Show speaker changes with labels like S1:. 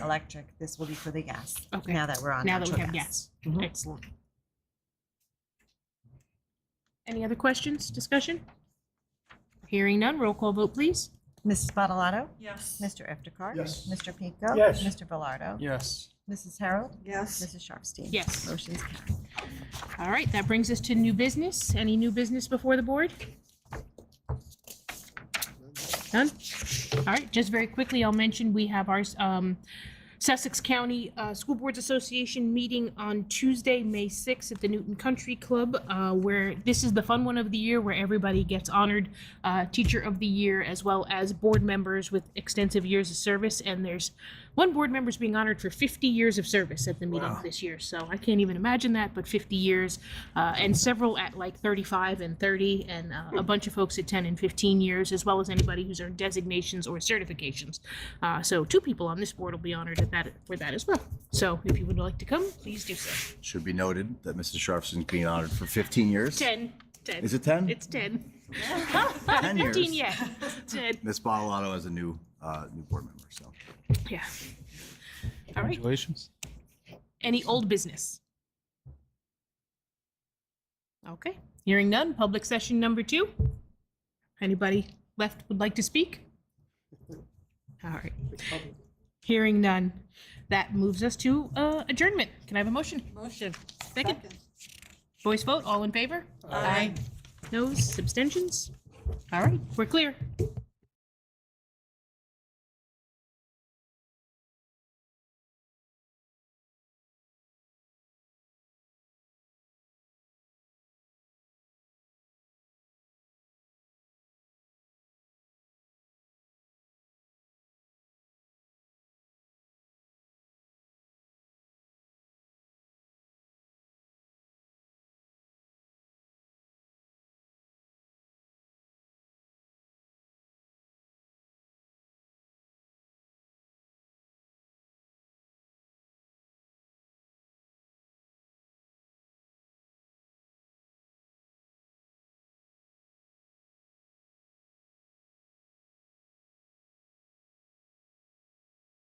S1: electric, this will be for the gas,
S2: Okay.
S1: now that we're on
S2: Now that we
S1: natural
S2: have Mm-hmm.
S1: gas. Mhm.
S2: Excellent. Any other questions, discussion? Hearing none, roll call vote, please.
S1: Mrs. Bottalato?
S3: Yes.
S1: Mr. Iftikhar?
S4: Yes.
S1: Mr. Pico?
S4: Yes.
S1: Mr. Velardo?
S4: Yes.
S1: Mrs. Harold?
S3: Yes.
S1: Mrs. Sharpstein?
S2: Yes.
S1: Motion's carried.
S2: All right, that brings us to new business. Any new business before the board? None? All right, just very quickly, I'll mention we have our um, Sussex County uh, School Boards Association meeting on Tuesday, May 6th at the Newton Country Club, uh, where this is the fun one of the year where everybody gets honored, uh, Teacher of the Year, as well as board members with extensive years of service. And there's one board member's being honored for 50 years of service at the meeting
S4: Wow.
S2: this year. So I can't even imagine that, but 50 years, uh, and several at like 35 and 30, and uh, a bunch of folks at 10 and 15 years, as well as anybody who's earned designations or certifications. Uh, so two people on this board will be honored at that for that as well. So if you would like to come, please do so.
S5: Should be noted that Mrs. Sharpson's being honored for 15 years.
S2: 10, 10.
S5: Is it 10?
S2: It's 10.
S5: 10 years.
S2: 15 yet. 10.
S5: Ms. Bottalato is a new, uh, new board member, so.
S2: Yeah. All right.
S4: Congratulations.
S2: Any old business? Okay, hearing none, public session number two. Anybody left would like to speak? All right. Hearing none, that moves us to uh, adjournment. Can I have a motion?
S3: Motion.
S2: Second, voice vote, all in favor?
S3: Aye.
S2: Noes, abstentions? All right, we're clear.